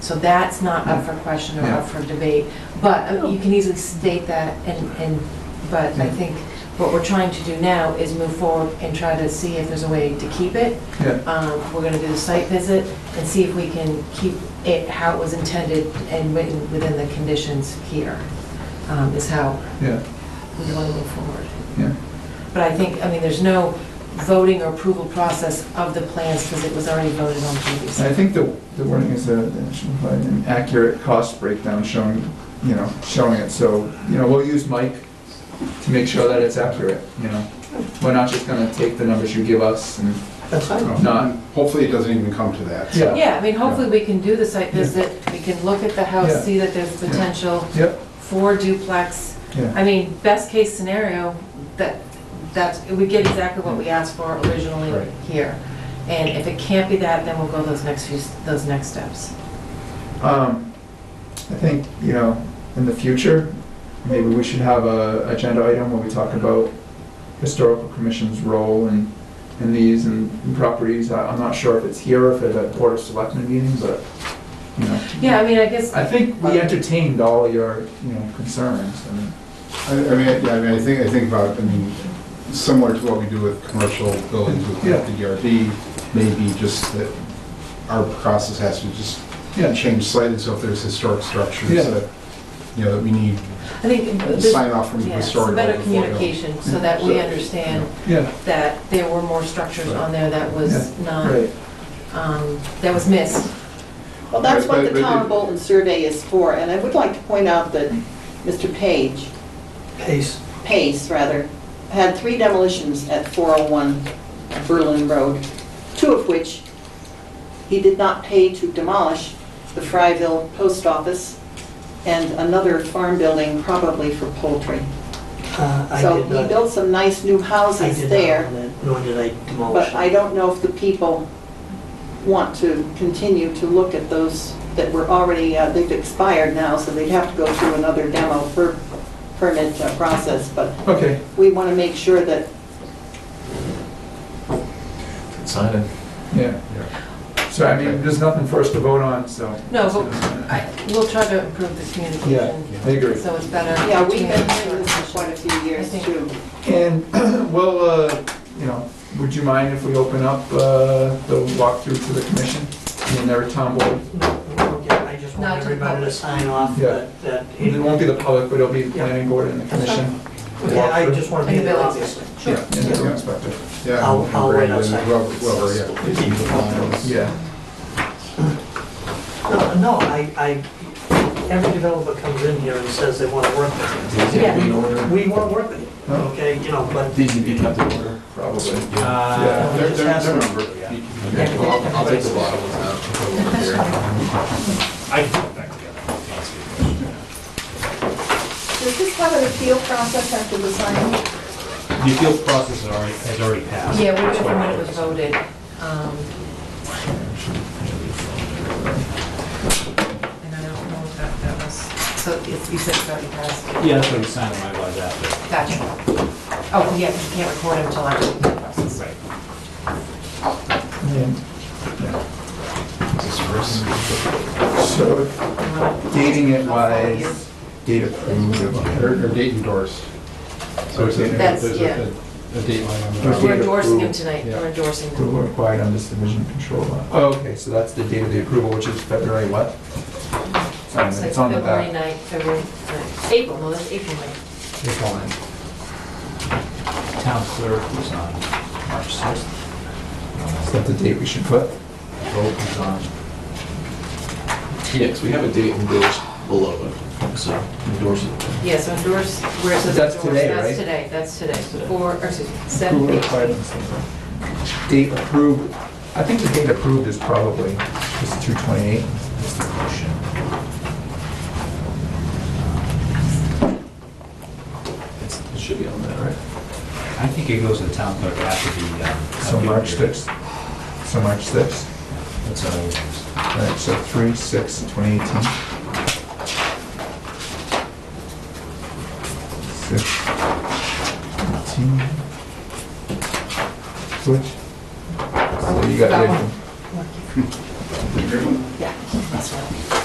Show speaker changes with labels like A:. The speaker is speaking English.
A: So that's not up for question or up for debate. But uh, you can easily state that and, and, but I think what we're trying to do now is move forward and try to see if there's a way to keep it.
B: Yeah.
A: Um, We're gonna do the site visit and see if we can keep it how it was intended and written within the conditions here, um, is how
B: Yeah,
A: we wanna move forward.
B: yeah.
A: But I think, I mean, there's no voting or approval process of the plans because it was already voted on
B: And I
A: previously.
B: think the, the wording is that it should provide an accurate cost breakdown showing, you know, showing it, so, you know, we'll use Mike to make sure that it's accurate, you know? We're not just gonna take the numbers you give us and,
C: That's fine.
B: Not-
C: Hopefully it doesn't even come to that.
B: Yeah.
A: Yeah, I mean, hopefully we can do the site visit, we can look at the
B: Yeah.
A: house, see that there's potential
B: yep,
A: for duplex.
B: yeah.
A: I mean, best case scenario, that, that's, we get exactly what we asked for originally
C: Right.
A: here. And if it can't be that, then we'll go those next few, those next steps.
B: Um, I think, you know, in the future, maybe we should have a agenda item where we talk about historical commission's role in, in these and properties. I- I'm not sure if it's here or if it's at Board of Selectmen meeting, but, you know.
A: Yeah, I mean, I guess,
B: I think we entertained all your, you know, concerns and,
C: I I mean, yeah, I mean, I think, I think about, I mean, similar to what we do with commercial buildings with
B: Yeah.
C: the DRB, maybe just that our process has to just
B: yeah,
C: change slightly, so if there's historic structures
B: Yeah.
C: that, you know, that we need
A: I think, this-
C: sign off from the
A: yeah, some
C: historical.
A: better
C: before, you know.
A: communication so that we
C: Yeah.
A: understand
B: yeah,
A: that there were more structures on there that was not,
B: right.
A: um, that was missed.
D: Well, that's what
C: Right,
D: the
C: right,
D: town
C: right.
D: of Bolton survey is for, and I would like to point out that Mr. Page,
E: Pace.
D: Pace rather, had three demolitions at 401 Berlin Road, two of which he did not pay to demolish, the Fryville Post Office and another farm building probably for poultry.
E: Uh, I
D: So
E: did
D: he
E: not,
D: built some nice new
E: I
D: houses
E: did
D: there.
E: not own it, nor did I demolish
D: But
E: it.
D: I don't know if the people want to continue to look at those that were already, uh, they've expired now, so they'd have to go through another demo per permit uh, process, but
B: Okay,
D: we want to make sure that,
F: Sign it.
B: yeah. So I mean, there's nothing for us to vote on, so.
A: No, but I, we'll try to improve this
B: Yeah,
A: communication,
B: I agree.
A: so it's better.
D: yeah, we've been
A: between-
D: doing this for quite a few
A: I
D: years
A: think-
D: too.
B: And, well, uh, you know, would you mind if we open up uh, the walkthrough to the commission and their town board?
E: Yeah, I just
A: Not
E: want
A: to
E: everybody to
A: public.
E: sign off
B: Yeah.
E: that, that.
B: It won't be the public, but it'll be the planning board and the commission.
E: Okay, I just want to be
A: And the
E: there,
A: building.
E: obviously.
B: Yeah, and the building inspector.
C: Yeah.
E: I'll-
C: and
E: I'll wait
C: Brandon,
E: outside.
C: whoever- whoever, yeah.
B: Yeah,
E: No, no, I, I, every developer comes in here and says they want to work with
A: Yeah.
F: In order.
E: you. We want to work with you,
B: Huh?
E: okay, you know, but.
F: These need to be kept in order.
B: probably.
F: Uh,
C: They're, they're,
E: Just
C: they're
E: ask
C: numbered, yeah.
F: Okay, well, I'll- I'll take the bottom ones out. and put them over here. I can put it back together. That's good.
D: Does this have an appeal process after the signing?
F: The appeals process has already, has already passed.
A: Yeah, we were when it was voted. um, And I don't know if that, that was, so it's- you said it's already passed.
F: Yeah, that's what you signed when I was after.
A: Gotcha. Oh, yeah, 'cause you can't record it until after the process.
F: Right.
B: And
C: This is Bruce.
B: So dating it wise, date approved of
C: Or or date endorsed. So it's a-
A: That's-
C: there's a,
A: yeah.
C: a- a date line on the.
B: There's
A: We're endorsing him
B: approved,
A: tonight,
C: yeah.
A: we're endorsing him.
B: approval required under subdivision control law. Oh, Okay, so that's the date of the approval, which is February what? Sorry,
A: It's like
B: It's on the
A: February
B: back.
A: 9th, February, uh, April, no, that's April 9th.
B: April ninth.
F: Town clerk was on March 6th.
B: Is that the date we should put?
F: Vote was on
G: Yes, we have a date endorsed below it, so endorse it.
A: Yeah, so endorse, where it says
B: That's
A: endorse,
B: today,
A: that's
B: right?
A: today, that's today.
G: today.
A: Four, or excuse me,
B: Approval
A: seven,
B: required
A: eight.
B: in subdivision. Date approved, I think the date approved is probably just 228.
F: motion.
G: It's- It should be on that, right?
F: I think it goes to the town clerk after the. uh,
B: So March
F: appeal period.
B: 6th. So March 6th.
F: That's how it is.
B: All right, so 3, 6, 2018. 6, 18. Which? So you got
A: That
B: it.
A: one. Yeah, that's what.